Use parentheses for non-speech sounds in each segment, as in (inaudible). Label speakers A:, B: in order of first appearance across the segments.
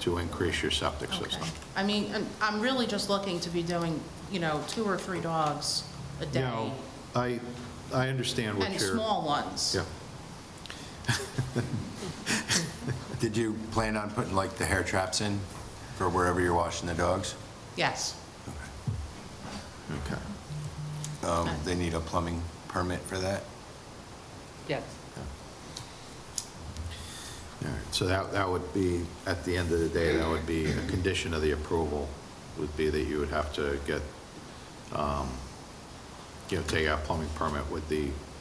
A: to increase your septic
B: Okay.
A: system.
B: I mean, I'm- I'm really just looking to be doing, you know, two or three dogs a day,
A: Now, I, I understand what
B: and
A: you're.
B: small ones.
A: Yeah. (laughs)
C: Did you plan on putting like the hair traps in for wherever you're washing the dogs?
B: Yes.
A: Okay.
C: Um, They need a plumbing permit for that?
D: Yes.
A: All right, so that, that would be, at the end of the day, that would be a condition of the approval, would be that you would have to get, um, you know, take out plumbing permit with the,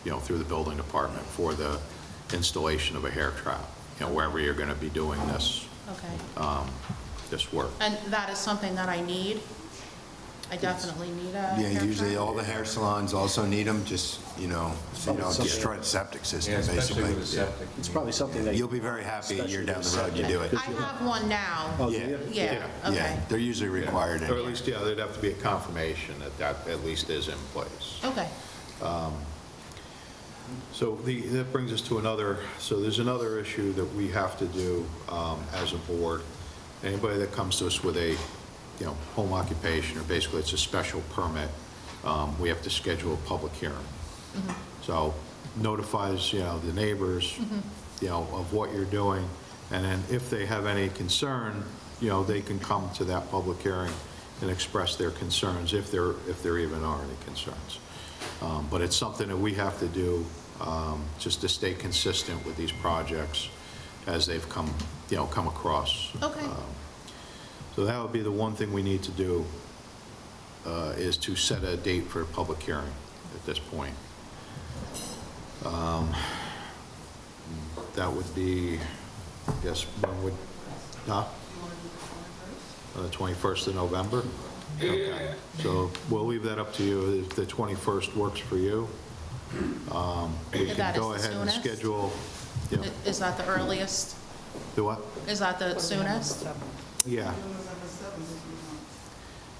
A: you know, through the building department for the installation of a hair trap, you know, wherever you're gonna be doing this,
B: Okay.
A: um, this work.
B: And that is something that I need. I definitely need a hair
C: Yeah, usually
B: dryer.
C: all the hair salons also need them, just, you know, so you don't destroy the septic system, basically.
E: It's probably something that.
C: You'll be very happy a year down the road you do it.
B: I have one now.
E: Oh, do
C: Yeah.
E: you?
B: Yeah,
A: Yeah.
B: okay.
C: Yeah, they're usually required.
A: Or at
C: anyway.
A: least, yeah, there'd have to be a confirmation that that at least is in place.
B: Okay.
A: So the, that brings us to another, so there's another issue that we have to do um, as a board. Anybody that comes to us with a, you know, home occupation, or basically it's a special permit, um, we have to schedule a public hearing. So notifies, you know, the neighbors, you know, of what you're doing, and then if they have any concern, you know, they can come to that public hearing and express their concerns, if there, if there even are any concerns. Um, But it's something that we have to do, um, just to stay consistent with these projects as they've come, you know, come across.
B: Okay.
A: Um, So that would be the one thing we need to do, uh, is to set a date for a public hearing at this point. Um, That would be, I guess, when would, huh? On the 21st of November? Okay. So we'll leave that up to you, if the 21st works for you. um, We
B: That
A: can
B: is
A: go
B: the
A: ahead and
B: soonest?
A: schedule, yeah,
B: I- Is that the earliest?
A: do what?
B: Is that the soonest?
A: Yeah.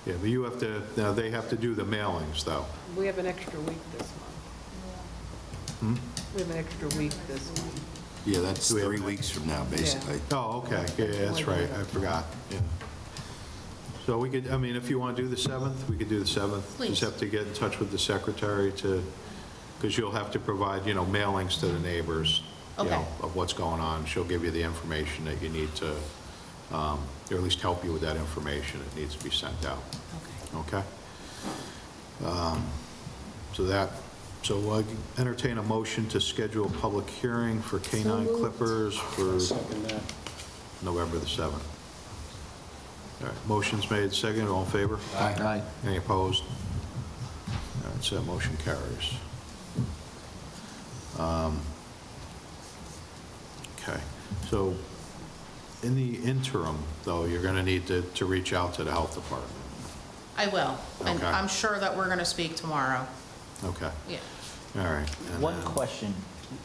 A: Yeah, but you have to, now they have to do the mailings, though.
D: We have an extra week this month.
A: Hmm?
D: We have an extra week this month.
C: Yeah, that's
A: Do we have
C: three
A: that?
C: weeks from now, basically.
A: Oh, okay, yeah, yeah, that's right, I forgot, yeah. So we could, I mean, if you want to do the 7th, we could do the 7th.
B: Please.
A: Just have to get in touch with the secretary to, because you'll have to provide, you know, mailings to the neighbors, you
B: Okay.
A: know, of what's going on. She'll give you the information that you need to, um, or at least help you with that information that needs to be sent out,
B: Okay.
A: okay? Um, So that, so I entertain a motion to schedule a public hearing for canine clippers for
E: Second that.
A: November the 7th. All right, motion's made, seconded, all in favor?
C: Aye.
A: Any opposed? All right, so that motion carries. Um, Okay, so in the interim, though, you're going to need to, to reach out to the health department.
B: I will. And
A: Okay.
B: I'm sure that we're going to speak tomorrow.
A: Okay,
B: Yeah.
A: all right. and uh,
F: One
A: then-
F: question.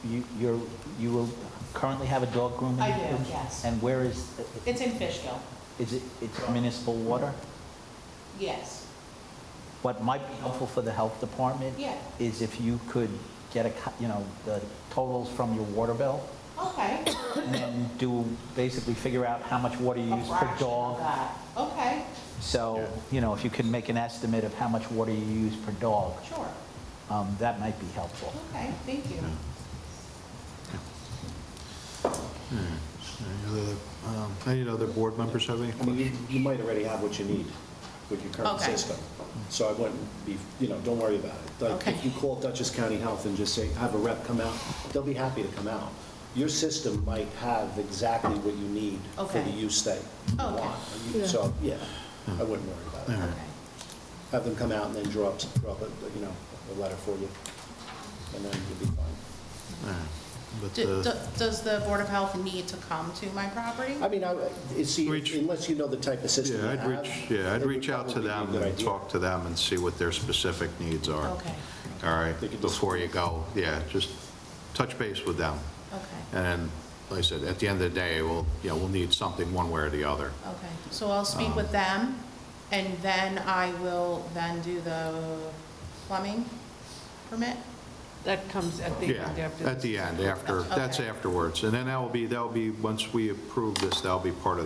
F: You, you're, you will currently have a dog grooming?
B: I do,
F: business?
B: yes.
F: And where is,
B: It's in Fishkill.
F: is it, it's municipal water?
B: Yes.
F: What might be helpful for the health department?
B: Yeah.
F: Is if you could get a, co- you know, the totals from your water bill
B: Okay.
F: and then do, basically figure out how much water you use per dog.
B: Okay,
F: So, you know, if you can make an estimate of how much water you use per dog,
B: sure.
F: um, that might be helpful.
B: Okay, thank you.
A: Any other, um, Any other board members have any?
E: I mean, you, you might already have what you need with your current
B: Okay.
E: system. So I wouldn't be, you know, don't worry about it. Like,
B: Okay.
E: If you call Dutchess County Health and just say, have a rep come out, they'll be happy to come out. Your system might have exactly what you need for
B: Okay.
E: the use that you
B: Okay.
E: want. And you- So, yeah, I wouldn't worry about it.
B: Okay.
E: Have them come out and then draw up, draw up, a, you know, a letter for you, and then you'll be fine.
A: But,
B: Do-
A: uh,
B: do- Does the Board of Health need to come to my property?
E: I mean, I, you see,
A: Reach-
E: unless you know the type of system you
A: Yeah,
E: have.
A: I'd reach, yeah, I'd
E: it would
A: reach out to
E: probably be a
A: them
E: good
A: and
E: idea.
A: talk to them and see what their specific needs are.
B: Okay.
A: All
E: They could
A: right,
E: just-
A: before you go, yeah, just touch base with them.
B: Okay,
A: And like I said, at the end of the day, we'll, you know, we'll need something one way or the other.
B: okay. So I'll speak with them, and then I will then do the plumbing permit?
D: That comes at the
A: Yeah,
D: end after.
A: at
D: this.
A: the end, after, that's
B: Okay.
A: afterwards. And then that'll be, that'll be, once we approve this, that'll be part of